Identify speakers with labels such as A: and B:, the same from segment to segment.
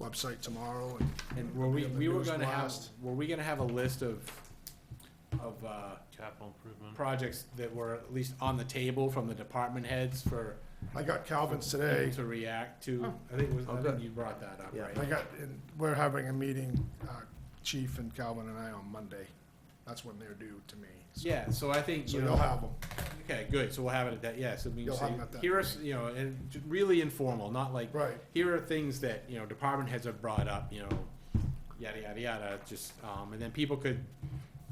A: website tomorrow and.
B: And were we,
A: it'll be on
B: we
A: the
B: were
A: news
B: gonna have,
A: blast.
B: were we gonna have a list of, of, uh,
C: Capital improvement.
B: projects that were at least on the table from the department heads for,
A: I got Calvin's today.
B: to react to? I think, it was- I think
D: Okay.
B: you brought that up,
D: Yeah.
A: I
B: right?
A: got, and we're having a meeting, uh, Chief and Calvin and I on Monday. That's when they're due to me. So-
B: Yeah, so I think,
A: So
B: you
A: you'll
B: know,
A: have them.
B: okay, good, so we'll have it at that, yeah, so we can
A: You'll have
B: say,
A: them at that
B: here are, s- you know, and j- really informal, not like,
A: Right.
B: here are things that, you know, department heads have brought up, you know, yada, yada, yada, just, um, and then people could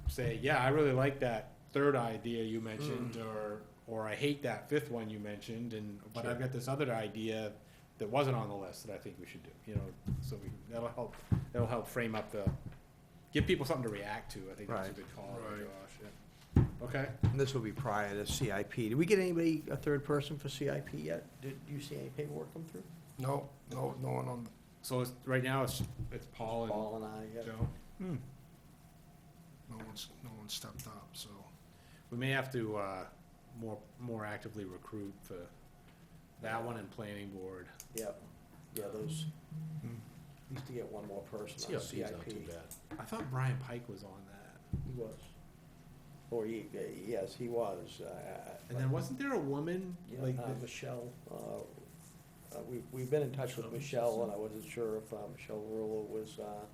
B: say, yeah, I really like that third idea you mentioned,
A: Mm.
B: or, or I hate that fifth one you mentioned, and, but I've got this other idea that wasn't on the list that I think we should do, you know, so we, that'll help, that'll help frame up the, give people something to react to, I think that's a
D: Right.
B: good call,
A: Right.
B: Josh, yeah. Okay,
D: And this will be prior to CIP. Did we get anybody, a third person for CIP yet? Did you see any paperwork come through?
A: No, no, no one on,
B: so it's, right now, it's, it's Paul
D: Paul and I,
B: and
D: yeah.
B: Joe.
A: no one's, no one stepped up, so.
B: We may have to, uh, more, more actively recruit for that one and planning board.
D: Yep. Yeah, those,
B: Hmm.
D: used to get one more person on
C: CIP is not too
D: CIP.
C: bad.
B: I thought Brian Pike was on that.
D: He was. Or he, uh, yes, he was. uh,
B: And then wasn't there a woman,
D: Yeah,
B: like,
D: uh,
B: that-
D: Michelle, uh, uh, we, we've been in touch with Michelle, and I wasn't sure if uh, Michelle Rulo was, uh,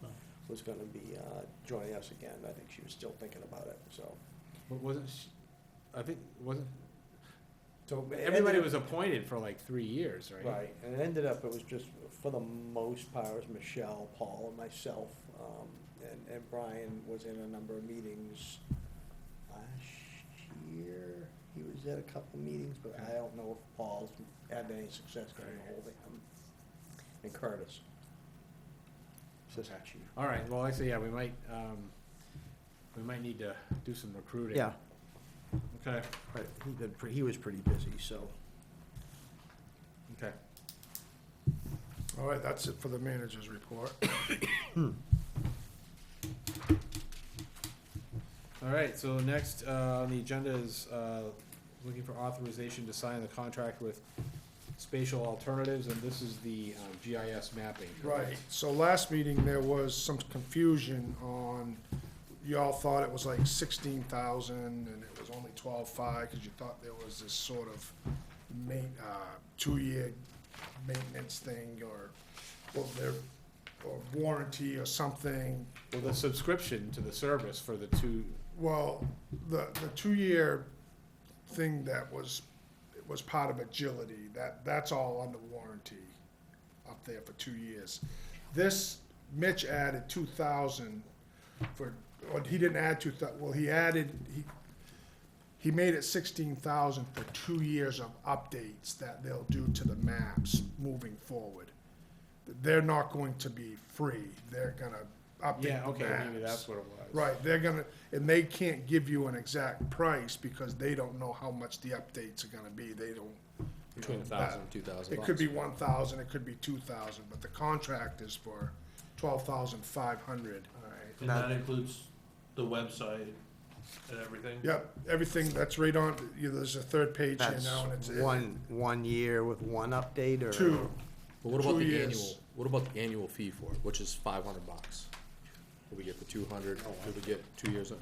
D: was gonna be uh, joining us again. I think she was still thinking about it, so.
B: but wasn't she, I think, wasn't,
D: So it ended
B: everybody
D: up-
B: was appointed for like three years, right?
D: Right, and it ended up, it was just, for the most part, it was Michelle, Paul, and myself, um, and, and Brian was in a number of meetings last year. He was at a couple meetings, but I don't know if Paul's had any success getting
B: Okay.
D: ahold of him. And Curtis. Assistant chief.
B: All right, well, I say, yeah, we might, um, we might need to do some recruiting.
D: Yeah,
B: Okay,
D: but he been, pre- he was pretty busy, so.
B: okay.
A: All right, that's it for the manager's report.
B: All right, so next, uh, on the agenda is, uh, looking for authorization to sign the contract with Spatial Alternatives, and this is the, um, GIS mapping.
A: Right, so last meeting, there was some confusion on, y'all thought it was like sixteen thousand, and it was only twelve-five, because you thought there was this sort of ma- uh, two-year maintenance thing, or, or their, or warranty or something.
B: Well, the subscription to the service for the two,
A: Well, the, the two-year thing that was, it was part of agility, that, that's all under warranty up there for two years. This, Mitch added two thousand for, or he didn't add two thou, well, he added, he, he made it sixteen thousand for two years of updates that they'll do to the maps moving forward. They're not going to be free, they're gonna update the
B: yeah,
A: maps.
B: okay, maybe that's what it was.
A: Right, they're gonna, and they can't give you an exact price because they don't know how much the updates are gonna be, they don't. you
C: Between
A: know,
C: a
A: that-
C: thousand and two thousand
A: It
C: bucks.
A: could be one thousand, it could be two thousand, but the contract is for twelve thousand five hundred.
E: And that includes the website and everything?
A: Yep, everything that's right on, you know, there's a third page here
D: That's
A: now and it's. it-
D: one, one year with one update, or?
A: Two,
C: But what about
A: Two
C: the
A: years.
C: annual, what about the annual fee for it, which is five hundred bucks? Did we get the two hundred, did we get two years of,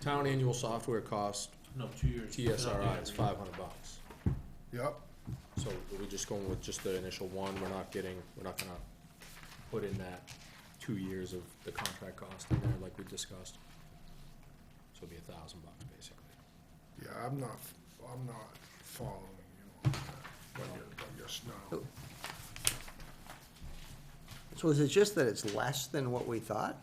C: town annual software cost,
E: No, two years.
C: TSRI is five hundred bucks.
A: yep,
C: So are we just going with just the initial one, we're not getting, we're not gonna put in that two years of the contract cost in there like we discussed? So it'd be a thousand bucks basically.
A: yeah, I'm not, I'm not following you on that, but you're, but you're snow.
D: So is it just that it's less than what we thought?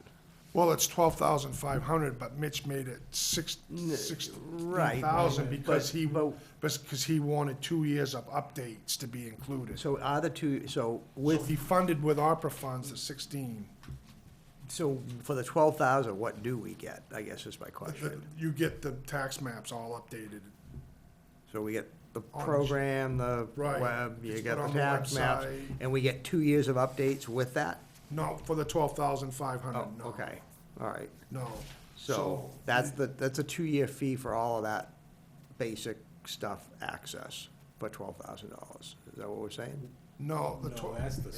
A: Well, it's twelve thousand five hundred, but Mitch made it six,
D: N-
A: sixteen
D: right,
A: thousand
D: but-
A: because he,
D: but-
A: because he wanted two years of updates to be included. So
D: So are the two, so with,
A: he funded with ARPA funds the sixteen.
D: so for the twelve thousand, what do we get, I guess is my question.
A: You get the tax maps all updated.
D: So we get the program, the
A: Right.
D: web, you
A: Just put
D: get the
A: on the
D: tax maps,
A: website.
D: and we get two years of updates with that?
A: No, for the twelve thousand five
D: Oh,
A: hundred, no.
D: okay, all right.
A: No.
D: So that's the, that's a two-year fee for all of that basic stuff access for twelve thousand dollars. Is that what we're saying?
A: No, the
B: No,
A: twelve,
B: that's the